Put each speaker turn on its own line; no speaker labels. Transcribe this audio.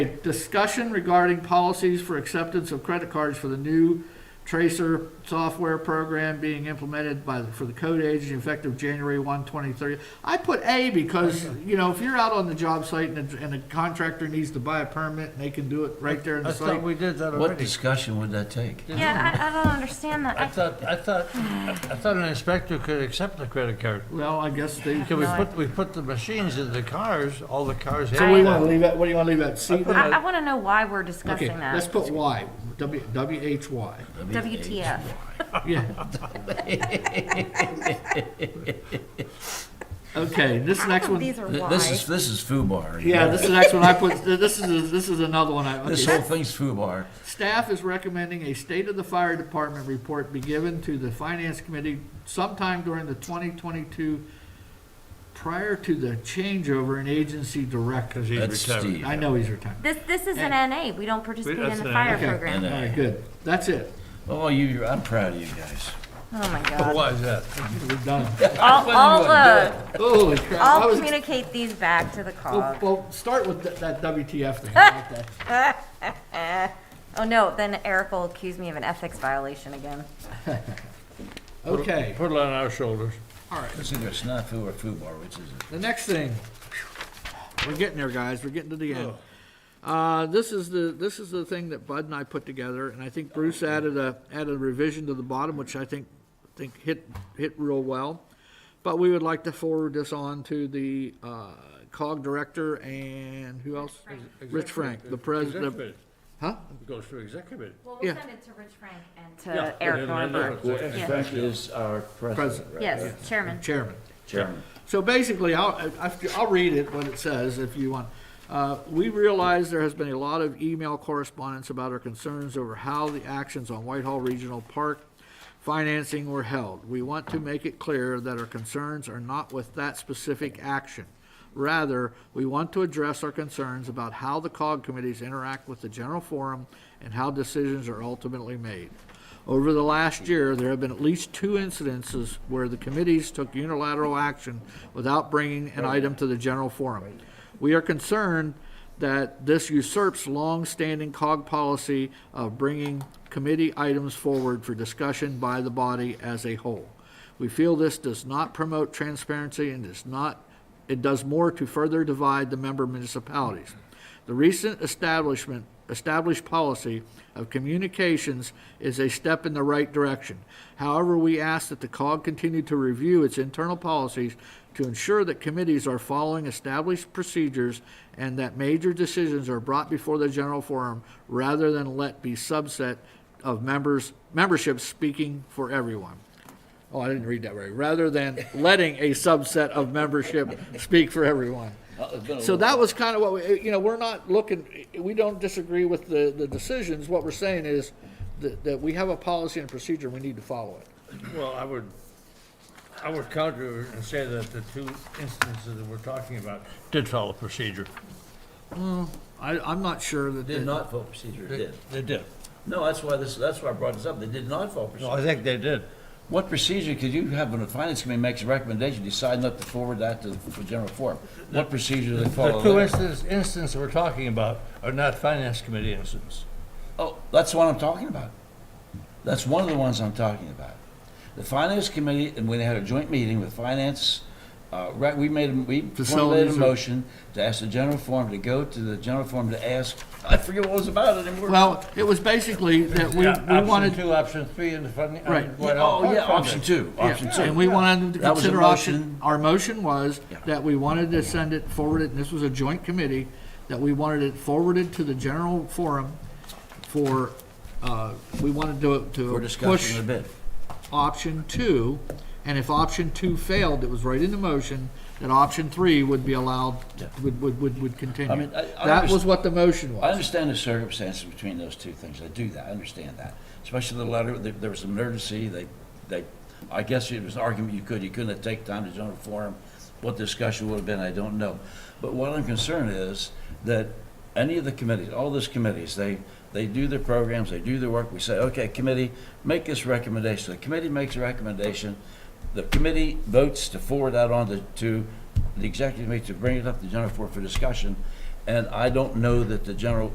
Discussion regarding policies for acceptance of credit cards for the new Tracer software program being implemented by, for the code agency effective January 1, 2030. I put A because, you know, if you're out on the job site and, a- and a contractor needs to buy a permit, and they can do it right there in
I
the
thought
site.
we did that
What
already.
discussion would that take?
Yeah, I, I don't understand that.
I
I,
thought, I thought, I thought an inspector could accept the credit card.
Well, I guess they,
Can we
No, I-
put, we put the machines in the cars, all the cars have
so we wanna
that.
leave that, what do you wanna leave that, C
I,
there?
I want to know why we're
Okay,
discussing
let's
that.
put Y, W, W H Y,
WTF.
yeah. Okay, this next
Some
one.
of These are
Th-
why.
This is, this is FUBAR. you
Yeah,
know.
this is the next one I put, this is, this is another one I,
This
okay.
whole thing's FUBAR.
Staff is recommending a state of the fire department report be given to the finance committee sometime during the twenty twenty-two prior to the changeover in agency director.
Because he's
That's
retired.
Steve.
I know he's retired.
This, this is an NA. We don't participate in
that's
the
an
fire
NA.
program.
Okay.
All right, good. That's it.
Oh, you, you're- I'm proud of you guys.
Oh my God.
Why is that?
We're done.
I'll, I'll, uh,
Holy crap. I
I'll
was-
communicate these back to the
Well,
cog.
well, start with that- that WTF thing. I like that.
Oh no, then Eric will accuse me of an ethics violation again.
Okay,
Put it on our shoulders.
all right.
It's either SNAFU or FUBAR, which is it?
The next thing, we're getting there, guys, we're getting to the end. Uh, this is the, this is the thing that Bud and I put together, and I think Bruce added a, added a revision to the bottom, which I think, think hit, hit real well. But we would like to forward this on to the, uh, COG director and who else? Rich Frank, the president, huh?
Goes through executive.
Well,
we'll Yeah. send
it to Rich Frank and
Yeah.
to Eric Norberg. Yeah.
Frank is our president,
President.
right?
Yes, chairman.
chairman.
Chairman.
So basically, I'll, I- I'll read it, what it says, if you want. Uh, We realize there has been a lot of email correspondence about our concerns over how the actions on Whitehall Regional Park financing were held. We want to make it clear that our concerns are not with that specific action. Rather, we want to address our concerns about how the COG committees interact with the general forum and how decisions are ultimately made. Over the last year, there have been at least two incidences where the committees took unilateral action without bringing an item to the general forum. We are concerned that this usurps long-standing COG policy of bringing committee items forward for discussion by the body as a whole. We feel this does not promote transparency and does not, it does more to further divide the member municipalities. The recent establishment, established policy of communications is a step in the right direction. However, we ask that the COG continue to review its internal policies to ensure that committees are following established procedures and that major decisions are brought before the general forum rather than let be subset of members, memberships speaking for everyone. Oh, I didn't read that right. Rather than letting a subset of membership speak for everyone.
Oh,
So that was kind of what we, you know, we're not looking, we don't disagree with the, the decisions. What we're saying is that, that we have a policy and procedure, we need to follow it.
Well, I would, I would counter and say that the two instances that we're talking about did follow procedure.
I, I'm not sure that.
Did not vote procedure, did.
They did.
No, that's why this, that's why I brought this up. They did not vote
No, I
procedure.
think they did.
What procedure could you have when the finance committee makes a recommendation, decide not to forward that to the general forum? What procedure do they
The
follow?
two
there?
instances, instances we're talking about are not finance committee incidents.
Oh, that's the one I'm talking about. That's one of the ones I'm talking about. The finance committee, and when they had a joint meeting with finance, uh, right, we made, a- we formulated
Facilities
a
or-
motion to ask the general forum to go to the general forum to ask, I forget what it was about anymore.
Well, it was basically that we,
Yeah,
we
Option
wanted.
two, option three, and the funding.
Right.
Oh, yeah, option two,
yeah,
option two.
And we wanted them to
That was a
consider option,
motion.
our motion was
Yeah.
that we wanted to send it forwarded, and this was a joint committee, that we wanted it forwarded to the general forum for, uh, we wanted to,
We're
to push
discussing the bid.
option two, and if option two failed, it was right in the motion, that option three would be allowed,
Yeah.
would, would, would, would
I
continue.
mean, I- I
That was what the motion
I
was.
understand the circumstances between those two things. I do that, I understand that. Especially the letter, there there was an emergency, they, they, I guess it was an argument you could, you couldn't have taken time to join a forum. What discussion would have been, I don't know. But what I'm concerned is that any of the committees, all those committees, they, they do their programs, they do their work. We say, okay, committee, make this recommendation. The committee makes a recommendation. The committee votes to forward that on to, to the executive committee to bring it up to the general floor for discussion. And I don't know that the general